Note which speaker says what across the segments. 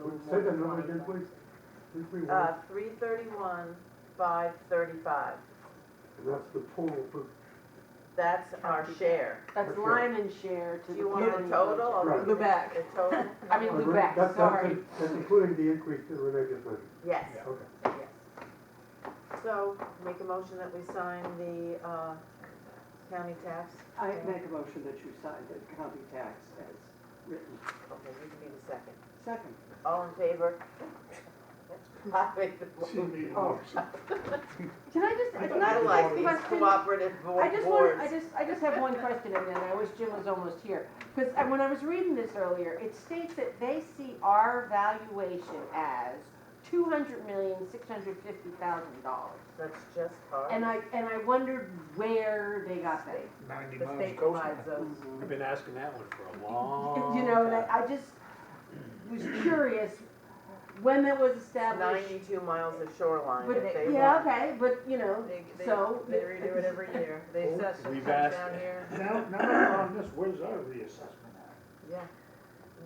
Speaker 1: more
Speaker 2: Say that
Speaker 1: than
Speaker 2: number again,
Speaker 1: 25.
Speaker 2: please. Did we
Speaker 1: Uh,
Speaker 2: want,
Speaker 1: three thirty-one, five thirty-five.
Speaker 2: that's the total for,
Speaker 1: That's our share.
Speaker 3: That's
Speaker 2: For sure.
Speaker 3: Lyman's share to
Speaker 1: Do
Speaker 3: the.
Speaker 1: you want the
Speaker 3: county
Speaker 1: total
Speaker 3: budget.
Speaker 1: or? the-
Speaker 3: Lubec.
Speaker 1: The total?
Speaker 3: I mean,
Speaker 2: That's-
Speaker 3: Lubec,
Speaker 2: that's-
Speaker 3: sorry.
Speaker 2: That's including the increase that Renee just mentioned.
Speaker 1: Yes,
Speaker 2: Okay.
Speaker 1: yes. So make a motion that we sign the, uh, county tax.
Speaker 4: I make a motion that you sign the county tax as written.
Speaker 1: Okay, you can be the second.
Speaker 4: Second.
Speaker 1: All in favor? I make the motion.
Speaker 3: Can I just, can
Speaker 1: I like
Speaker 3: I
Speaker 1: these
Speaker 3: ask a question?
Speaker 1: cooperative bo-
Speaker 3: I
Speaker 1: boards.
Speaker 3: just want, I just, I just have one question, and then I wish Jim was almost here. Because when I was reading this earlier, it states that they see our valuation as two hundred million, six hundred fifty thousand dollars.
Speaker 1: That's just hard.
Speaker 3: And I, and I wondered where they got that.
Speaker 5: ninety
Speaker 1: The
Speaker 5: miles
Speaker 1: state
Speaker 5: coastline.
Speaker 4: Oh,
Speaker 1: provides us.
Speaker 4: um,
Speaker 5: I've been asking that one for a long.
Speaker 3: You know, and
Speaker 5: time.
Speaker 3: I I just was curious when that was established.
Speaker 1: Ninety-two miles of shoreline
Speaker 3: But,
Speaker 1: if they
Speaker 3: yeah,
Speaker 1: want.
Speaker 3: okay, but, you know,
Speaker 1: They, they,
Speaker 3: so.
Speaker 1: they redo it every year. They
Speaker 5: Oh,
Speaker 1: assess it
Speaker 5: we've
Speaker 1: comes
Speaker 5: asked-
Speaker 1: down here.
Speaker 5: Now, now that we're on this, where's our reassessment at?
Speaker 1: Yeah.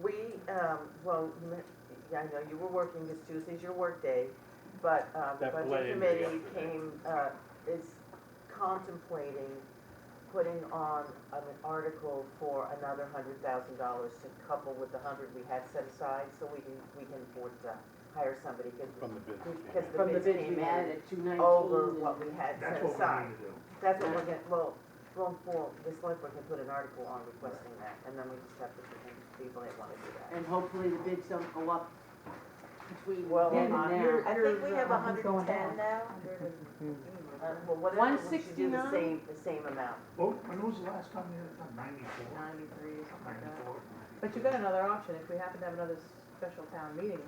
Speaker 1: We, um, well, you meant- yeah, I know you were working, because Tuesday's your workday, but, um, the
Speaker 5: That
Speaker 1: budget
Speaker 5: blame me up
Speaker 1: committee
Speaker 5: for that.
Speaker 1: came, uh, is contemplating putting on an article for another hundred thousand dollars to couple with the hundred we had set aside, so we can, we can afford to hire somebody, because,
Speaker 5: From the
Speaker 1: because
Speaker 5: business.
Speaker 1: the bids
Speaker 3: Came
Speaker 1: came
Speaker 3: out
Speaker 1: in
Speaker 3: at two nineteen.
Speaker 1: over what we had set
Speaker 5: That's what we
Speaker 1: aside.
Speaker 5: need to do.
Speaker 1: That's what we're gonna, well, going forward, this select board can put an article on requesting that, and then we just have to pick people that wanna do that.
Speaker 3: And hopefully the bids don't go up between
Speaker 1: Well,
Speaker 3: then
Speaker 1: uh,
Speaker 3: and now.
Speaker 1: I think we have a hundred
Speaker 6: Nothing's
Speaker 1: and
Speaker 6: going
Speaker 1: ten
Speaker 6: down.
Speaker 1: now. Uh, Well, whatever, we should do the
Speaker 3: 169?
Speaker 1: same, the same amount.
Speaker 5: Well, when was the last time you had done ninety-four?
Speaker 6: Ninety-three or something like that.
Speaker 5: Ninety-four?
Speaker 6: But you got another option, if we happen to have another special town meeting,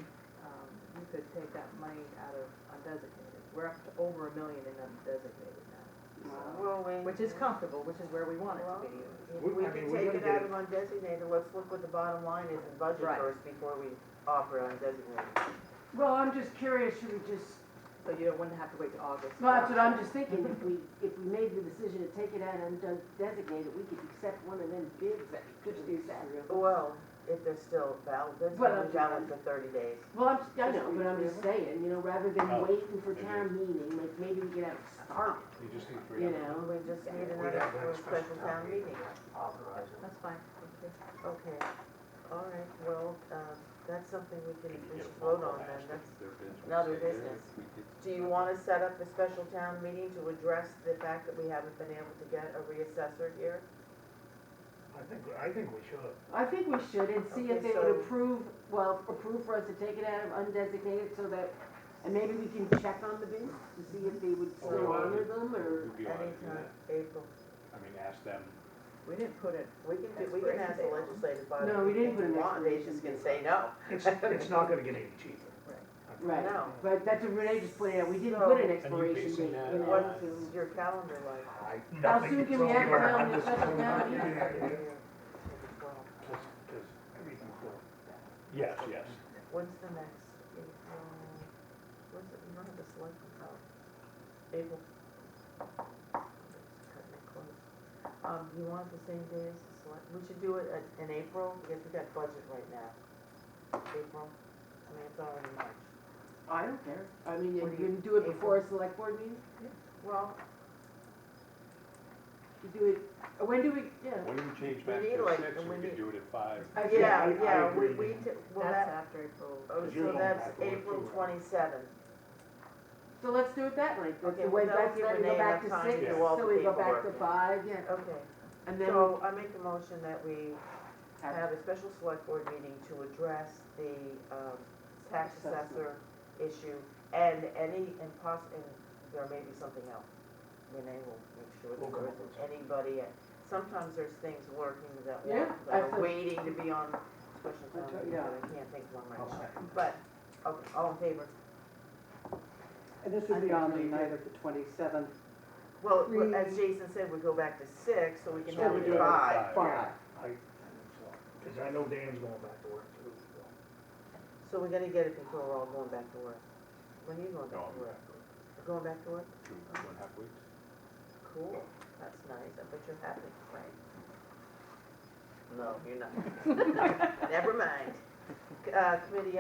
Speaker 6: um, you could take that money out of undesignated. We're up to over a million in undesignated now,
Speaker 1: Will we?
Speaker 6: which is comfortable, which is where we want it to be.
Speaker 1: If
Speaker 5: We-
Speaker 1: we
Speaker 5: I
Speaker 1: can
Speaker 5: mean, we're
Speaker 1: take it
Speaker 5: gonna
Speaker 1: out
Speaker 5: get-
Speaker 1: of undesignated, let's look what the bottom line is in budget
Speaker 6: Right.
Speaker 1: first before we offer undesignated.
Speaker 3: Well, I'm just curious, should we just,
Speaker 6: So you don't- wouldn't have to wait till August.
Speaker 3: well, that's what I'm just thinking, if we, if we made the decision to take it out and done- designate it, we could accept one of them bids that could do that.
Speaker 1: Well, if they're still valid, that's
Speaker 3: Well,
Speaker 1: only
Speaker 3: I'm-
Speaker 1: valid for thirty days.
Speaker 3: Well, I'm, just- I know, but I'm just saying, you know, rather than
Speaker 5: Oh,
Speaker 3: waiting for
Speaker 5: maybe.
Speaker 3: town meeting, like maybe we could have it started,
Speaker 5: You just need three.
Speaker 3: you
Speaker 5: of them.
Speaker 3: know?
Speaker 1: We just need
Speaker 5: We'd
Speaker 1: another
Speaker 5: have
Speaker 1: for
Speaker 5: that
Speaker 1: a special town meeting.
Speaker 5: Authorize it.
Speaker 6: That's fine.
Speaker 1: Okay, all right, well, um, that's something we
Speaker 5: You
Speaker 1: can,
Speaker 5: can
Speaker 1: we
Speaker 5: get
Speaker 1: should
Speaker 5: a phone
Speaker 1: vote
Speaker 5: call
Speaker 1: on then,
Speaker 5: asking
Speaker 1: that's,
Speaker 5: if their bids would
Speaker 1: another
Speaker 5: stay there,
Speaker 1: business.
Speaker 5: if we did
Speaker 1: do you
Speaker 5: something.
Speaker 1: wanna set up a special town meeting to address the fact that we haven't been able to get a reassessor here?
Speaker 5: I think, I think we should.
Speaker 3: I think we should, and see if
Speaker 1: Okay,
Speaker 3: they would
Speaker 1: so-
Speaker 3: approve, well, approve for us to take it out of undesignated so that, and maybe we can check on the bids to see if they would
Speaker 5: Oh,
Speaker 3: still
Speaker 5: wow.
Speaker 3: honor them, or,
Speaker 5: We'd be allowed to do
Speaker 1: Anytime,
Speaker 5: that.
Speaker 1: April,
Speaker 5: I mean, ask them.
Speaker 6: We didn't put it,
Speaker 1: we can, do- we can ask the legislative body.
Speaker 3: No, we didn't put an
Speaker 1: want, They just
Speaker 3: expiration date.
Speaker 1: can say no.
Speaker 5: It's, it's not gonna get any cheaper.
Speaker 6: Right.
Speaker 5: I think.
Speaker 3: right.
Speaker 1: No.
Speaker 3: But that's what Renee just pointed out, we didn't put an
Speaker 1: So-
Speaker 3: expiration
Speaker 5: basing
Speaker 3: date,
Speaker 5: that
Speaker 3: you know,
Speaker 5: on-
Speaker 3: so-
Speaker 1: What's your calendar like?
Speaker 5: I
Speaker 3: How
Speaker 5: don't
Speaker 3: soon
Speaker 5: think
Speaker 3: can
Speaker 5: it's
Speaker 3: we have it
Speaker 5: cheaper.
Speaker 3: down
Speaker 5: I'm
Speaker 3: in the
Speaker 5: just-
Speaker 3: special town
Speaker 5: Yeah,
Speaker 3: meeting?
Speaker 5: yeah, yeah.
Speaker 1: Well,
Speaker 5: Cause, cause everything will. Yes, yes.
Speaker 1: When's the next, April, when's it, none of this like, oh, April. It's cutting it close. Um, you want the same day as the select, we should do it at- in April, because we got budget right now. April, I mean, it's already March.
Speaker 3: I don't care, I mean,
Speaker 1: What
Speaker 3: you
Speaker 1: do you-
Speaker 3: can do it before a select board meeting,
Speaker 1: Well,
Speaker 3: you do it, uh, when do we, yeah.
Speaker 5: When you change
Speaker 1: We
Speaker 5: back
Speaker 1: need,
Speaker 5: to
Speaker 1: like,
Speaker 5: six,
Speaker 1: we
Speaker 5: we
Speaker 1: need-
Speaker 5: could do it at five.
Speaker 3: I think-
Speaker 1: uh, yeah,
Speaker 5: I- I
Speaker 1: yeah, we,
Speaker 5: agree.
Speaker 1: we, t- well,
Speaker 6: That's
Speaker 1: that,
Speaker 6: after April.
Speaker 1: oh,
Speaker 5: Because you're
Speaker 1: so
Speaker 5: going
Speaker 1: that's
Speaker 5: back to work
Speaker 1: April
Speaker 5: too, right?
Speaker 1: twenty-seventh.
Speaker 3: So let's do it that night, that's
Speaker 1: Okay,
Speaker 3: the way,
Speaker 1: well, that'll
Speaker 3: that's,
Speaker 1: give
Speaker 3: then we
Speaker 1: Renee
Speaker 3: go back to
Speaker 1: enough time
Speaker 3: six,
Speaker 5: to
Speaker 1: do all the
Speaker 3: so we go back to
Speaker 1: paperwork.
Speaker 3: five, yeah,
Speaker 1: Okay,
Speaker 3: and then we
Speaker 1: so I make the motion that we
Speaker 3: have
Speaker 1: have a special select board meeting to address the um, tax assessor issue and any, and poss, and there may be something else. Renee will make sure that
Speaker 5: We'll come
Speaker 1: there
Speaker 5: up
Speaker 1: isn't
Speaker 5: with
Speaker 1: anybody, and sometimes there's things working that
Speaker 3: Yeah,
Speaker 1: want, that are
Speaker 3: absolutely.
Speaker 1: waiting to be on special town
Speaker 4: Okay,
Speaker 1: meeting,
Speaker 4: yeah.
Speaker 1: but I can't think of one right
Speaker 5: I'll
Speaker 1: now.
Speaker 5: second.
Speaker 1: But, okay, all in favor?
Speaker 4: And this would be on the night of the twenty-seventh,
Speaker 1: Well,
Speaker 4: Three.
Speaker 1: as Jason said, we go back to six, so we can
Speaker 5: So
Speaker 1: have
Speaker 5: we
Speaker 1: it
Speaker 5: do it
Speaker 1: five.
Speaker 5: at
Speaker 4: five.
Speaker 5: I, I think so. Cause I know Dan's going back to work too, so.
Speaker 1: So we're gonna get it before we're all going back to work. When are you going back to work? You're Going back to work?
Speaker 5: Two, two and a half weeks.
Speaker 1: Cool, that's nice, I bet you're happy, right? No, you're not. Never mind. Uh, committee